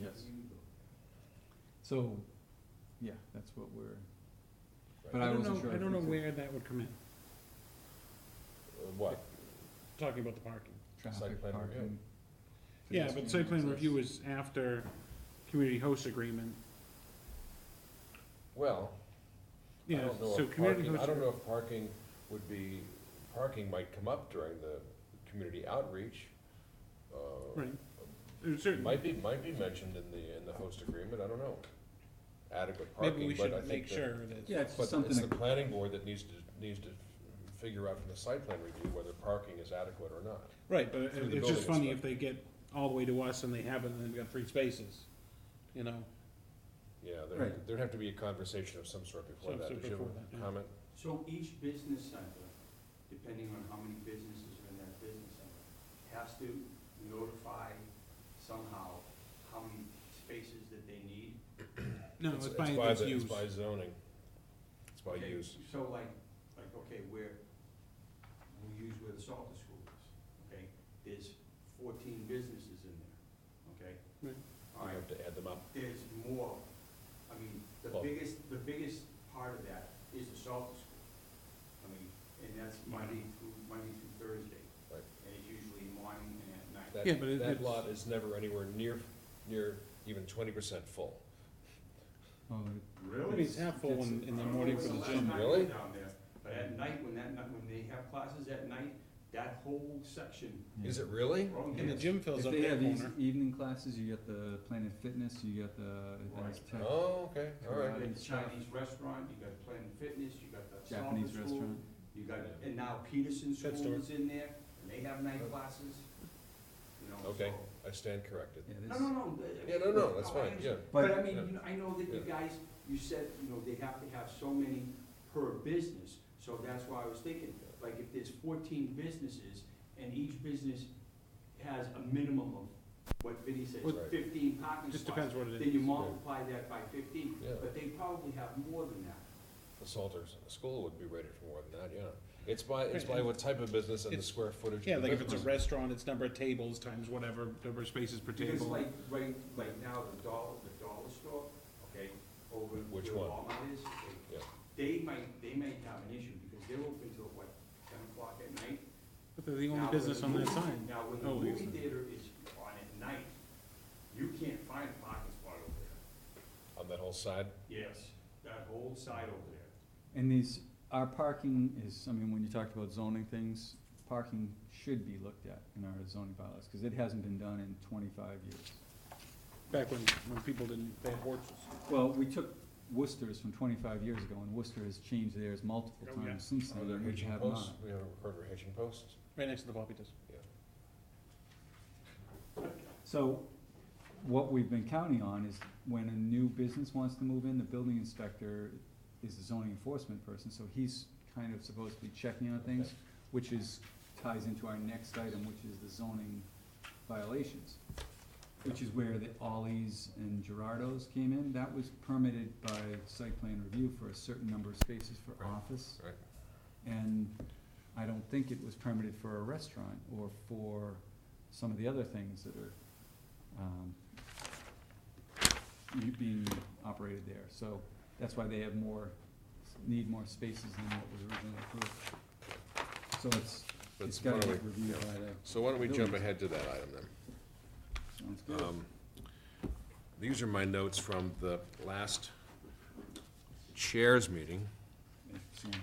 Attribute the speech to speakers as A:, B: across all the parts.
A: Yes. So, yeah, that's what we're, but
B: I
A: I
B: don't
A: wasn't
B: know,
A: sure.
B: I
A: if
B: don't
A: we
B: know
A: could
B: where that would come in,
C: Uh, What?
B: talking about the parking.
C: Site
A: Traffic,
C: plan review.
A: parking.
B: Yeah, but site plan
A: pedestrian
B: review
A: access.
B: is after community host agreement,
C: Well, I
B: yeah,
C: don't know
B: so
C: if
B: community
C: parking,
B: host.
C: I don't know if parking would be, parking might come up during the community outreach. uh,
B: Right, Uh, certainly,
C: Might be, might be mentioned in the, in the host agreement, I don't know. Adequate
B: maybe
C: parking,
B: we
C: but I
B: should make
C: think that.
B: sure that.
A: Yeah, it's
C: But
A: just
C: it's the
A: something, that-
C: planning board that needs to, needs to figure out from the site plan review whether parking is adequate or not.
B: Right, but it-
C: Through the
B: it's just
C: building
B: funny if they get all the way to us and they have it and they've got three spaces, you know?
C: Yeah, there,
A: Right.
C: there'd have to be a conversation of some sort before
B: Some
C: that.
B: sort
C: Did you
B: before
C: have a
B: that, yeah.
C: comment?
D: So each business center, depending on how many businesses are in that business center, has to notify somehow how many spaces that they need?
B: No, it's by its
C: the-
B: use.
C: It's by zoning. It's by
D: Okay,
C: use.
D: So like, like, okay, where, we use where the Salter School is, okay? There's fourteen businesses in there, okay?
B: Right.
D: All
C: You
D: right,
C: have to add them up.
D: there's more, I mean, the
C: Well-
D: biggest, the biggest part of that is the Salter School. I mean, and that's Monday through, Monday through Thursday.
C: Right.
D: And it's usually morning and at night.
C: That,
B: Yeah, but it-
C: that
B: it's-
C: lot is never anywhere near, near even twenty percent full.
A: oh,
B: I mean, it's half full in, in the morning for the
D: I don't
B: gym.
D: know when's the last time I
C: Really?
D: went down there, But at night, when that, night- when they have classes at night, that whole section.
A: yeah.
C: Is it really?
D: Oh,
B: And the
D: yes.
B: gym fills
A: If
B: up
A: they
B: that
A: have these
B: corner.
A: evening classes, you got the Planet Fitness, you got the Advanced Tech,
C: Oh, okay, all
D: You
C: right.
D: got the Chinese restaurant, you got Planet Fitness, you got the
A: Japanese
D: Salter School.
A: restaurant.
D: You got, and now Peterson
B: Pet
D: School
B: store.
D: is in there, and they have night classes, you know,
C: Okay.
D: so-
C: I stand corrected.
A: Yeah,
D: No,
A: there's,
D: no, no. uh,
C: Yeah, no, no, that's
D: I
C: fine, yeah.
D: understand. But I
C: yeah.
D: mean, you know, I know that you
C: Yeah.
D: guys, you said, you know, they have to have so many per business, so that's why I was thinking, like, if there's fourteen businesses, and each business has a minimum of, what Vinnie says,
C: Right.
D: fifteen parking
B: Just
D: spots,
B: depends what it
D: then you
B: is.
D: multiply that by fifteen,
C: Yeah.
D: but they probably have more than that.
C: The Salters, the school would be rated for more than that, yeah. It's by, it's by what type of business and the
B: It's-
C: square footage. of
B: Yeah,
C: the
B: like if it's a
C: business.
B: restaurant, it's number of tables times whatever, number of spaces per
D: Because
B: table.
D: like, right, like now, the dollar, the dollar store, okay, over where
C: Which one?
D: Walmart is,
C: Yeah.
D: they, they might, they might have an issue, because they're open till, what, ten o'clock at night?
B: But they're the
D: Now,
B: only
D: when
B: business
D: the
B: on that
D: movie-
B: side.
D: Now, when
B: Oh,
D: the
B: yes,
D: movie
B: sir.
D: theater is on at night, you can't find a parking spot over there.
C: On that whole side?
D: Yes, that whole side over there.
A: and these, our parking is, I mean, when you talked about zoning things, parking should be looked at in our zoning bylaws, cause it hasn't been done in twenty-five years.
B: Back when, when people didn't, they had horses.
A: Well, we took Worcester's from twenty-five years ago, and Worcester has changed theirs multiple
B: Oh, yeah.
A: times since
C: Are
A: then,
C: there
A: and we
C: hitching
A: have
C: posts?
A: not.
C: We have heard of hitching posts?
B: Right next to the floppy disk.
A: So what we've been counting on is when a new business wants to move in, the building inspector is the zoning enforcement person, so he's kind of supposed to be checking on things, which is, ties into our next item, which is the zoning violations. Which is where the Ollie's and Gerardo's came in, that was permitted by site plan review for a certain number of spaces for
C: Right.
A: office.
C: Right.
A: And I don't think it was permitted for a restaurant or for some of the other things that are, um, u- being operated there, so that's why they have more, need more spaces than what was originally approved. So it's,
C: But
A: it's
C: why
A: gotta
C: don't
A: get
C: we-
A: reviewed
C: yeah.
A: by the,
C: So why don't we jump
A: Buildings.
C: ahead to that item then?
A: sounds good.
C: Um, These are my notes from the last chairs meeting, Uh,
A: Excellent.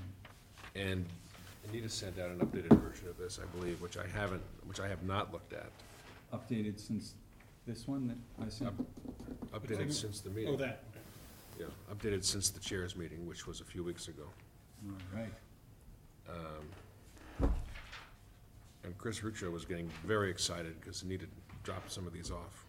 C: and Anita sent out an updated version of this, I believe, which I haven't, which I have not looked at,
A: Updated since this one that I sent,
C: updated since the
B: Oh,
C: meeting.
B: that.
C: Yeah, updated since the chairs meeting, which was a few weeks ago.
A: alright,
C: And Chris Ruccio was getting very excited because Anita dropped some of these off.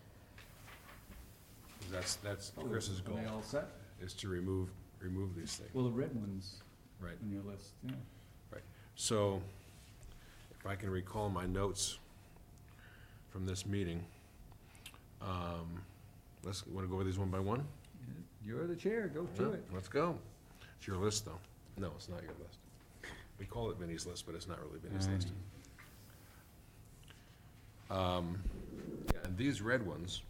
C: That's, that's Oh, Chris's goal,
A: are Oh, they all set?
C: is to remove, remove these things,
A: Well, the red ones
C: right?
A: on your list, yeah,
C: So, if I can recall my notes from this meeting, um, let's, wanna go over these one by one?
A: you're the chair, go
C: Yeah,
A: to it.
C: Let's go. It's your list, though. No, it's not your list. We call it Vinnie's list, but it's not really Vinnie's list. Um, yeah, and these red ones